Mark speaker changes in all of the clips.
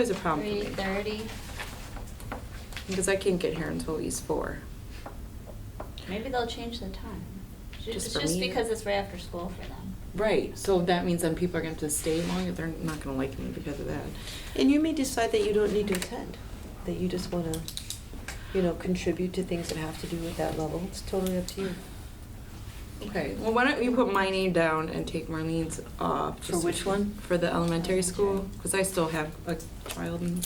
Speaker 1: Always a problem
Speaker 2: Three
Speaker 1: for me,
Speaker 2: thirty.
Speaker 1: because I can't get here until at least four.
Speaker 2: Maybe they'll change the time. Ju-
Speaker 1: Just
Speaker 2: It's
Speaker 1: for
Speaker 2: just
Speaker 1: me?
Speaker 2: because it's right after school for them.
Speaker 1: Right, so that means then people are gonna have to stay longer, they're not gonna like me because of that.
Speaker 3: And you may decide that you don't need to attend, that you just want to, you know, contribute to things that have to do with that level. It's totally up to you.
Speaker 1: Okay, well, why don't you put my name down and take Marlene's off?
Speaker 3: For
Speaker 1: just-
Speaker 3: which one?
Speaker 1: For the elementary school,
Speaker 2: Elementary.
Speaker 1: because I still have a child in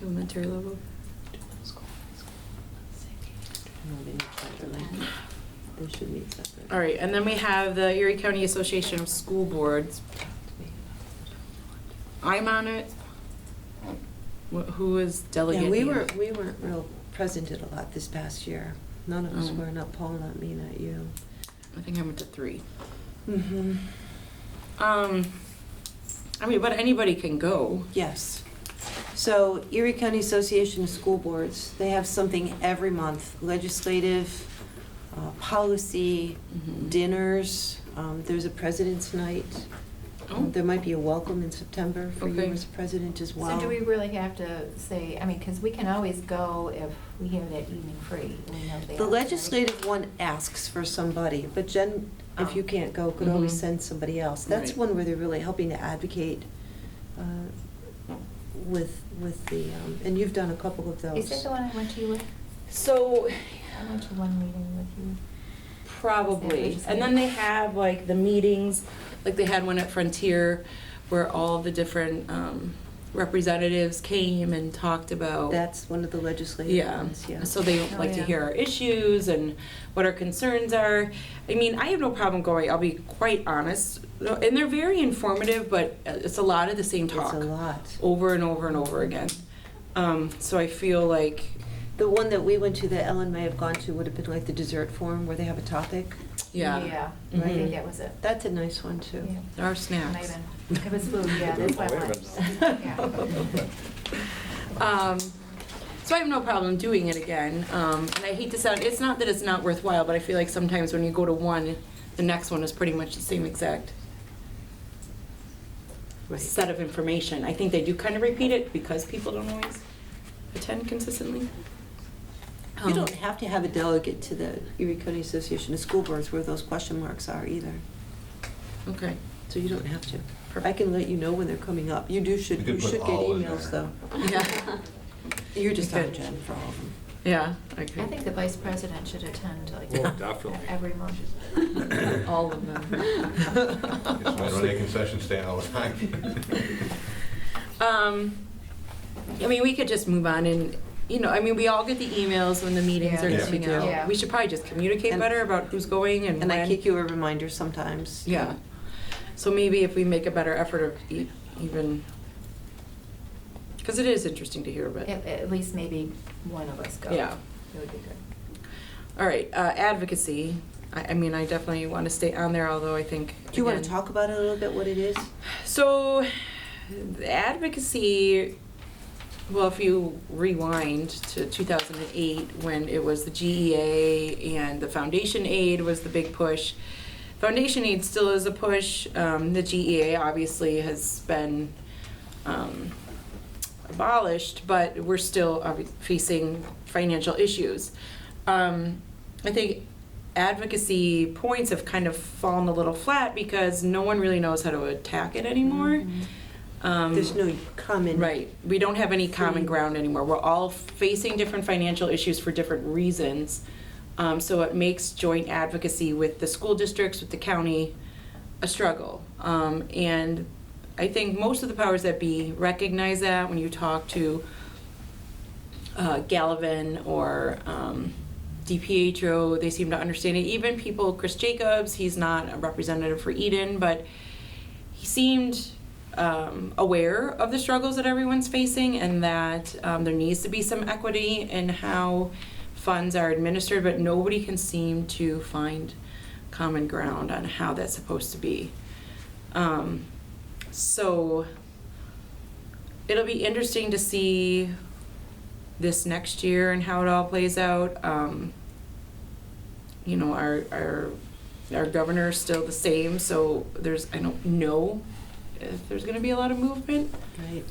Speaker 1: elementary level.
Speaker 3: No, they meet separately. They should meet separately.
Speaker 1: All right, and then we have the Erie County Association of School Boards. I'm on it. Wh- Who is delegate?
Speaker 3: Yeah, we were,
Speaker 1: here?
Speaker 3: we weren't real present at a lot this past year. None of us
Speaker 1: Oh.
Speaker 3: were, not Paul, not me, not you.
Speaker 1: I think I went to three.
Speaker 3: Mm-hmm.
Speaker 1: Um, I mean, but anybody can go.
Speaker 3: Yes. So Erie County Association of School Boards, they have something every month, legislative, uh, policy,
Speaker 4: Mm-hmm.
Speaker 1: Mhm.
Speaker 3: dinners. Um, There's a president's night.
Speaker 1: Oh.
Speaker 3: Um, There might be a welcome in September for you
Speaker 1: Okay.
Speaker 3: as president as well.
Speaker 4: So do we really have to say, I mean, because we can always go if we have that evening free. we know they
Speaker 3: The
Speaker 4: are, right?
Speaker 3: legislative one asks for somebody, but Jen,
Speaker 4: Oh.
Speaker 3: if you can't go, could always
Speaker 1: Mhm.
Speaker 4: Mm-hmm.
Speaker 3: send somebody else. That's
Speaker 1: Right.
Speaker 3: one where they're really helping to advocate uh, with, with the, um, and you've done a couple of those.
Speaker 4: Is that the one I went to you with?
Speaker 1: So.
Speaker 4: I went to one meeting with you.
Speaker 1: Probably. And then they have like the meetings, like they had one at Frontier where all the different um, representatives came and talked about.
Speaker 3: That's one of the legislative
Speaker 1: Oh. Yeah,
Speaker 3: ones, yeah.
Speaker 1: so they
Speaker 4: Oh,
Speaker 1: like to
Speaker 4: yeah.
Speaker 1: hear our issues and what our concerns are. I mean, I have no problem going, I'll be quite honest. And they're very informative, but uh, it's a lot of the same talk. Oh.
Speaker 3: It's a lot.
Speaker 1: Over and over and over again. Um, So I feel like,
Speaker 3: The one that we went to that Ellen may have gone to would have been like the dessert forum where they have a topic.
Speaker 1: yeah,
Speaker 4: Yeah, I
Speaker 1: Mhm.
Speaker 4: think that was it.
Speaker 3: That's a nice one too.
Speaker 4: Yeah.
Speaker 1: there are snacks.
Speaker 4: Maybe. It was food, yeah, that's why I went. Yeah.
Speaker 1: Um, so I have no problem doing it again. Um, and I hate to sound, it's not that it's not worthwhile, but I feel like sometimes when you go to one, the next one is pretty much the same exact set of information. I think they do kind of repeat it because people don't always attend consistently.
Speaker 3: You
Speaker 1: Um,
Speaker 3: don't have to have a delegate to the Erie County Association of School Boards where those question marks are either.
Speaker 1: Okay.
Speaker 3: So you don't have to. I can let you know when they're coming up. You do should, you
Speaker 5: You could put
Speaker 3: should get
Speaker 5: all in
Speaker 3: emails though.
Speaker 5: there.
Speaker 1: Yeah.
Speaker 3: You're just
Speaker 1: You
Speaker 3: on
Speaker 1: could.
Speaker 3: Jen for all of them.
Speaker 1: Yeah, I agree.
Speaker 4: I think the vice president should attend
Speaker 5: Oh,
Speaker 4: like
Speaker 5: definitely.
Speaker 4: every month.
Speaker 1: All of them.
Speaker 5: It's my running concession stand all the time.
Speaker 1: Um, I mean, we could just move on and, you know, I mean, we all get the emails when the meetings are
Speaker 5: Yeah.
Speaker 1: coming
Speaker 3: Yeah.
Speaker 1: out.
Speaker 4: Yeah.
Speaker 1: We should probably just communicate
Speaker 3: And-
Speaker 1: better about who's going and when.
Speaker 3: And I kick you a reminder sometimes.
Speaker 1: Yeah. So maybe if we make a better effort of e- even, because it is interesting to hear, but.
Speaker 4: At, at least maybe one of us go.
Speaker 1: Yeah.
Speaker 4: It would be good.
Speaker 1: All right, uh, advocacy. I, I mean, I definitely want to stay on there, although I think.
Speaker 3: Do you want to
Speaker 1: again-
Speaker 3: talk about it a little bit, what it is?
Speaker 1: So, the advocacy, well, if you rewind to 2008, when it was the GEA and the foundation aid was the big push. Foundation aid still is a push. Um, the GEA obviously has been um, abolished, but we're still obvi- facing financial issues. Um, I think advocacy points have kind of fallen a little flat because no one really knows how to attack it anymore. Um,
Speaker 3: Mm-hmm. There's no common.
Speaker 1: Right, we don't have any common
Speaker 3: Free-
Speaker 1: ground anymore. We're all facing different financial issues for different reasons. Um, so it makes joint advocacy with the school districts, with the county, a struggle. Um, and I think most of the powers that be recognize that when you talk to uh, Gallivan or um, DiPietro, they seem to understand it. Even people, Chris Jacobs, he's not a representative for Eden, but he seemed um, aware of the struggles that everyone's facing and that um, there needs to be some equity in how funds are administered, but nobody can seem to find common ground on how that's supposed to be. Um, so it'll be interesting to see this next year and how it all plays out. Um, you know, our, our, our governor is still the same, so there's, I don't know if there's gonna be a lot of movement. Um,
Speaker 3: Right.